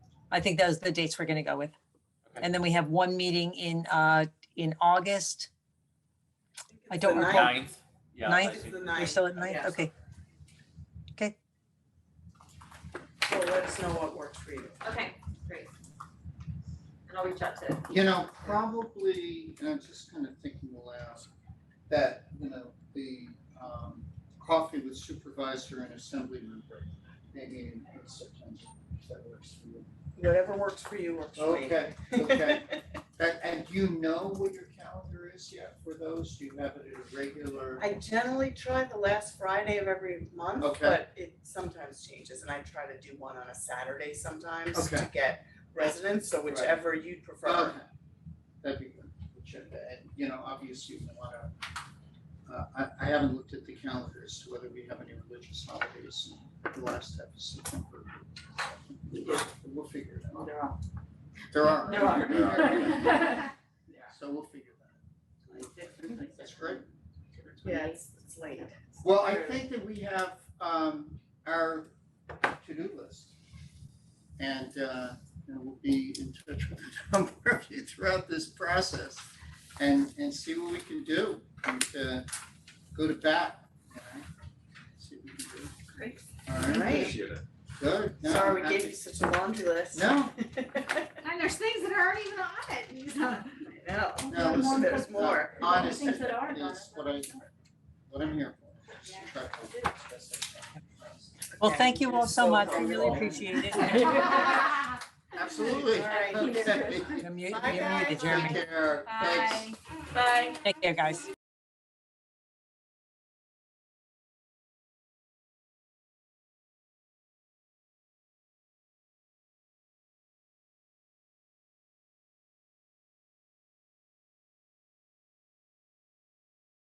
I think those are the dates we're going to go with. Okay. And then we have one meeting in, uh, in August. I don't It's the recall. ninth. Ninth? Yeah, I Ninth? It's think- the We're ninth, still at night? Yes. Okay. so let us know what works for you. Okay, great. And I'll reach out to, You know, probably, and I'm just kind of thinking aloud, that, you know, the um coffee with supervisor and assembly member, maybe in September, if that works for you. Whatever works for you works for me. Okay, okay. And and do you know what your calendar is yet for those? Do you have it at a regular? I generally try the last Friday of every month, Okay. but it sometimes changes and I try to do one on a Saturday sometimes to Okay. get residents, so whichever you'd prefer. Okay. That'd be good. Agenda. And, you know, obviously we wanna, uh, I I haven't looked at the calendar as to whether we have any religious holidays in the last half of September. We'll figure it out. They're all- Oh, There are. There are. So we'll figure that out. That's great. Yeah, it's, it's late. Well, I think that we have um our to-do list. And uh and we'll be in touch with a number of you throughout this process and and see what we can do and uh go to bat, you know? See what we can do. Great. All right, Right. Appreciate it. good. No, Sorry, we happy- gave you such a laundry list. No, And there's things that aren't even on it, you know. No, no, listen, there's no, more. honest Things that are done. is what I what I'm here for. is to Yeah. try to express that. Well, Okay. thank you all so So much. I really helpful. appreciate it. Bye, Absolutely. All right. Okay. You're mu- Take you're muted, Jeremy. care, thanks. Bye. bye. Take care, guys.